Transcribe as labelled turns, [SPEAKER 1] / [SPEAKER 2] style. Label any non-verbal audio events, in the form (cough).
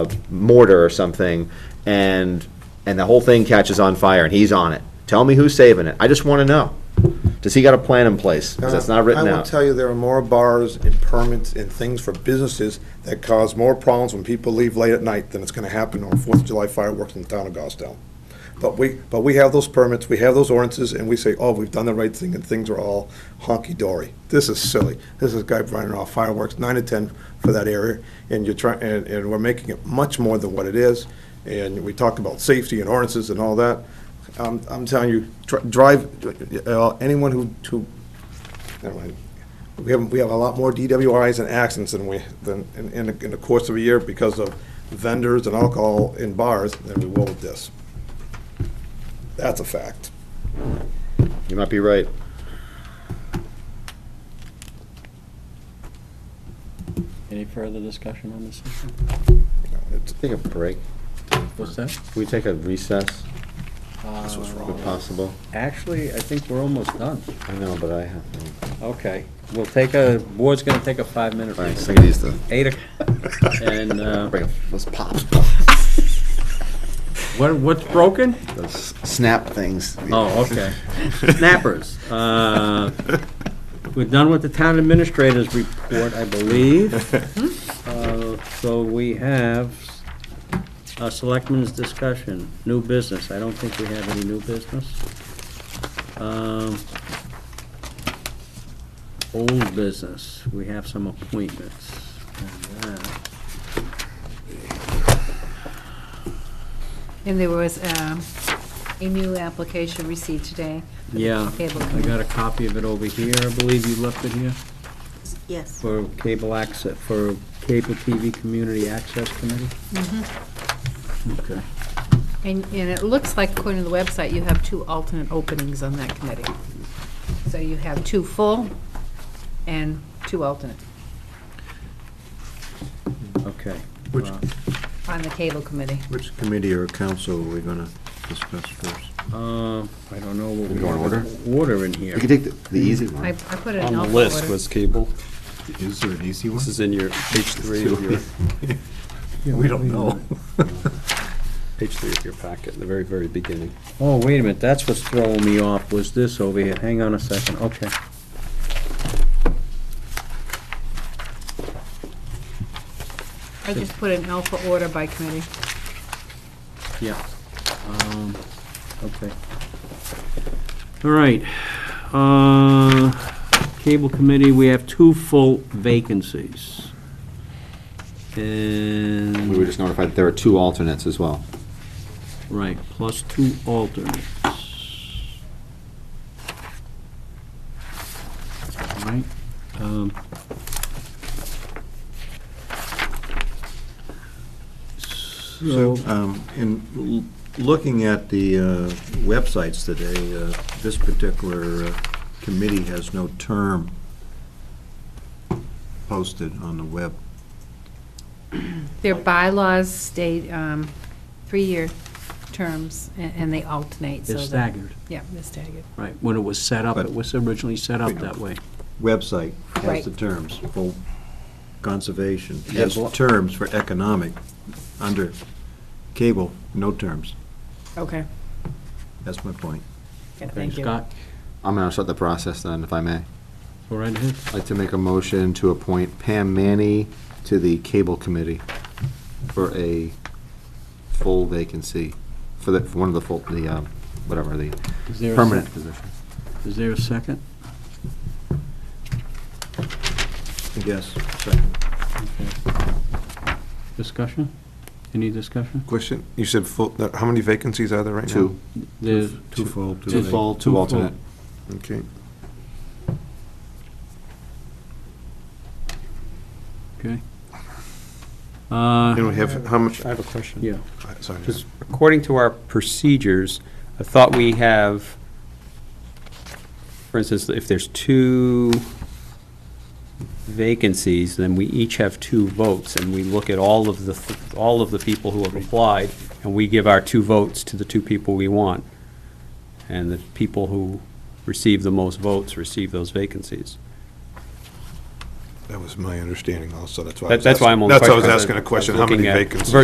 [SPEAKER 1] mortar or something, and, and the whole thing catches on fire, and he's on it. Tell me who's saving it. I just want to know. Does he got a plan in place? Because it's
[SPEAKER 2] Uh,
[SPEAKER 1] not written
[SPEAKER 3] I will
[SPEAKER 1] out.
[SPEAKER 3] tell you, there are more bars and permits and things for businesses that cause more problems when people leave late at night than it's gonna happen on Fourth of July fireworks in the town of Goffstown. But we, but we have those permits, we have those ordinances, and we say, oh, we've done the right thing, and things are all honky-dory. This is silly. This is a guy running off fireworks, nine to ten for that area, and you're trying, and, and we're making it much more than what it is. And we talk about safety and ordinances and all that. I'm, I'm telling you, dri- drive, uh, anyone who, who Never mind. We have, we have a lot more DWIs and accidents than we, than, in, in the- in the course of a year because of vendors and alcohol in bars than we will with this. That's a fact.
[SPEAKER 1] You might be right.
[SPEAKER 4] Any further discussion on this issue?
[SPEAKER 3] It's-
[SPEAKER 1] Take a break.
[SPEAKER 4] What's that?
[SPEAKER 1] Can we take a recess,
[SPEAKER 3] This was
[SPEAKER 1] if
[SPEAKER 3] wrong.
[SPEAKER 1] possible?
[SPEAKER 4] Uh, Actually, I think we're almost done.
[SPEAKER 1] I know, but I have,
[SPEAKER 4] Okay, we'll take a, board's gonna take a five-minute
[SPEAKER 1] all right,
[SPEAKER 4] break.
[SPEAKER 1] take it easy.
[SPEAKER 4] Eight, (laughs) o'clock. and, uh,
[SPEAKER 1] Break, those (laughs) pops,
[SPEAKER 4] what, what's (laughs) broken?
[SPEAKER 1] those snap things.
[SPEAKER 4] Oh,
[SPEAKER 1] (laughs)
[SPEAKER 4] okay. Snappers. Uh, We're done with the town administrator's report, I believe. Uh, So we have a selectmen's discussion, new business. I don't think we have any new business. Um, Old business, we have some appointments. And that-
[SPEAKER 5] And there was um, a new application received today. for the
[SPEAKER 4] Yeah,
[SPEAKER 5] Cable
[SPEAKER 4] I got a copy of it over here. I believe you left it here.
[SPEAKER 5] Yes.
[SPEAKER 4] For cable access, for cable TV community access committee? Okay.
[SPEAKER 5] And, and it looks like according to the website, you have two alternate openings on that committee. So you have two full and two alternate
[SPEAKER 4] Okay.
[SPEAKER 2] Which-
[SPEAKER 4] Uh,
[SPEAKER 5] on the cable committee.
[SPEAKER 2] Which committee or council are we going to discuss first?
[SPEAKER 4] Uh, I don't know what we.
[SPEAKER 1] Go in order?
[SPEAKER 4] Order in here.
[SPEAKER 1] We can take the the easy
[SPEAKER 5] I,
[SPEAKER 1] one.
[SPEAKER 5] I put it
[SPEAKER 6] On
[SPEAKER 5] in
[SPEAKER 6] the
[SPEAKER 5] alpha
[SPEAKER 6] list
[SPEAKER 5] order.
[SPEAKER 6] was cable.
[SPEAKER 2] Is there an easy one?
[SPEAKER 6] This is in your, page three of your,
[SPEAKER 2] We don't know.
[SPEAKER 6] page three of your packet, the very, very beginning.
[SPEAKER 4] Oh, wait a minute, that's what's throwing me off, was this over here. Hang on a second, okay.
[SPEAKER 5] I just put in alpha order by committee.
[SPEAKER 4] Yeah. Um, Okay. All right. Uh, Cable committee, we have two full vacancies. And.
[SPEAKER 1] We were just notified that there are two alternates as well.
[SPEAKER 4] Right, plus two alternates. Right, um.
[SPEAKER 2] So,
[SPEAKER 4] So,
[SPEAKER 2] um, in l- looking at the uh, websites today, uh, this particular uh, committee has no term posted on the web.
[SPEAKER 5] Their bylaws state um, three-year terms and- and they alternate. so
[SPEAKER 4] it's
[SPEAKER 5] that-
[SPEAKER 4] staggered,
[SPEAKER 5] Yeah, they're staggered.
[SPEAKER 4] right, when it was set up, it
[SPEAKER 2] But-
[SPEAKER 4] was originally set up that way.
[SPEAKER 2] Website has
[SPEAKER 5] Right.
[SPEAKER 2] the terms for conservation,
[SPEAKER 4] Yeah,
[SPEAKER 2] has
[SPEAKER 4] but-
[SPEAKER 2] terms for economic, under cable, no terms.
[SPEAKER 5] Okay,
[SPEAKER 2] That's my point.
[SPEAKER 5] Yeah,
[SPEAKER 4] Okay,
[SPEAKER 5] thank you.
[SPEAKER 4] Scott,
[SPEAKER 1] I'm gonna start the process then, if I may.
[SPEAKER 4] go right ahead.
[SPEAKER 1] I'd like to make a motion to appoint Pam Manny to the Cable Committee for a full vacancy, for the, for one of the full, the, um, whatever, the
[SPEAKER 4] Is there a sec-
[SPEAKER 1] permanent position.
[SPEAKER 4] Is there a second?
[SPEAKER 2] Yes, second.
[SPEAKER 4] Discussion? Any discussion?
[SPEAKER 3] Question, you said full, how many vacancies are there right
[SPEAKER 1] Two,
[SPEAKER 4] There's
[SPEAKER 2] Twofold,
[SPEAKER 4] two
[SPEAKER 2] two
[SPEAKER 4] full-
[SPEAKER 2] full.
[SPEAKER 1] full, two alternate.
[SPEAKER 3] Okay.
[SPEAKER 4] Okay. Uh,
[SPEAKER 3] we have, how much,
[SPEAKER 6] I have a question.
[SPEAKER 4] yeah,
[SPEAKER 3] sorry.
[SPEAKER 6] Because according to our procedures, I thought we have, for instance, if there's two vacancies, then we each have two votes, and we look at all of the, th- all of the people who have applied, and we give our two votes to the two people we want. And the people who receive the most votes receive those vacancies.
[SPEAKER 3] That was my understanding also, that's why. I
[SPEAKER 6] That-
[SPEAKER 3] was
[SPEAKER 6] That's why I'm
[SPEAKER 3] asking-
[SPEAKER 6] on.
[SPEAKER 3] That's why I was asking a question, how many vacancies?